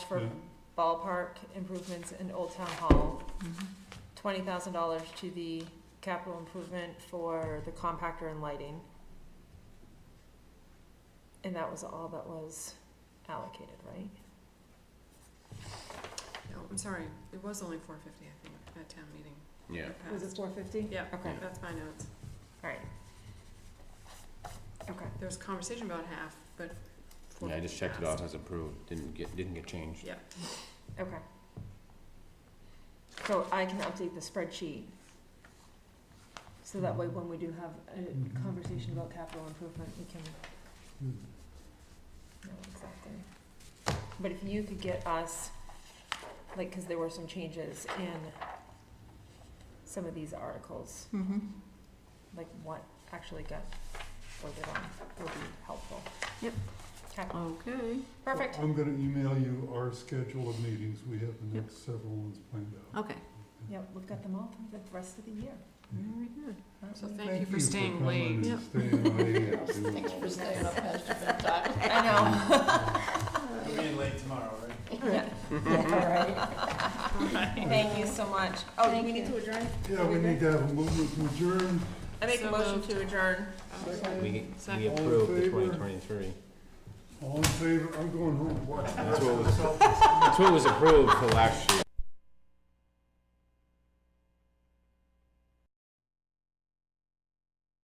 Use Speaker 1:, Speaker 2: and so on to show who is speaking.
Speaker 1: for
Speaker 2: Yeah.
Speaker 1: ballpark improvements in Old Town Hall.
Speaker 2: Mm-hmm.
Speaker 1: Twenty thousand dollars to the capital improvement for the compactor and lighting. And that was all that was allocated, right?
Speaker 3: No, Oh, I'm sorry, it was only four fifty, I think, at town meeting.
Speaker 4: Yeah.
Speaker 3: It
Speaker 1: Was it
Speaker 3: passed.
Speaker 1: four fifty?
Speaker 3: Yeah,
Speaker 1: Okay,
Speaker 3: that's my notes.
Speaker 1: alright. Okay,
Speaker 3: There was conversation about half, but four
Speaker 4: Yeah, I
Speaker 3: fifty
Speaker 4: just checked it off as approved, didn't get, didn't get changed.
Speaker 3: Yeah,
Speaker 1: okay. So I can update the spreadsheet. So that way when we do have a conversation about capital improvement, we can No, exactly. But if you could get us, like, cause there were some changes in some of these articles,
Speaker 2: Mm-hmm.
Speaker 1: like what actually got voted on would be helpful.
Speaker 2: Yep.
Speaker 1: Okay,
Speaker 2: Okay.
Speaker 1: perfect.
Speaker 5: I'm gonna email you our schedule of meetings. We have the
Speaker 2: Yep.
Speaker 5: next several ones planned out.
Speaker 2: Okay.
Speaker 1: Yep, we've got them all for the rest of the year.
Speaker 2: Very good.
Speaker 1: aren't
Speaker 3: So
Speaker 1: we?
Speaker 3: thank you for staying
Speaker 5: coming and
Speaker 3: late.
Speaker 2: Yep.
Speaker 5: staying late and doing
Speaker 1: for
Speaker 5: all this.
Speaker 1: staying up
Speaker 2: past your bedtime.
Speaker 1: I know.
Speaker 2: You're
Speaker 5: getting
Speaker 2: late tomorrow,
Speaker 1: Yeah. Thank you so much. Oh, do
Speaker 2: Thank
Speaker 1: we need
Speaker 2: you.
Speaker 1: to adjourn?
Speaker 5: Yeah, we need to have a movement to adjourn.
Speaker 1: I make a
Speaker 3: So
Speaker 1: motion
Speaker 3: moved.
Speaker 1: to adjourn.
Speaker 5: Second.
Speaker 4: We, we
Speaker 3: Second.
Speaker 4: approved
Speaker 5: All in
Speaker 4: the
Speaker 5: favor?
Speaker 4: twenty twenty-three.
Speaker 5: All in favor? I'm going home to watch the rest
Speaker 4: what
Speaker 5: of
Speaker 4: was-
Speaker 5: the Celtics.
Speaker 4: That's what was approved for last year.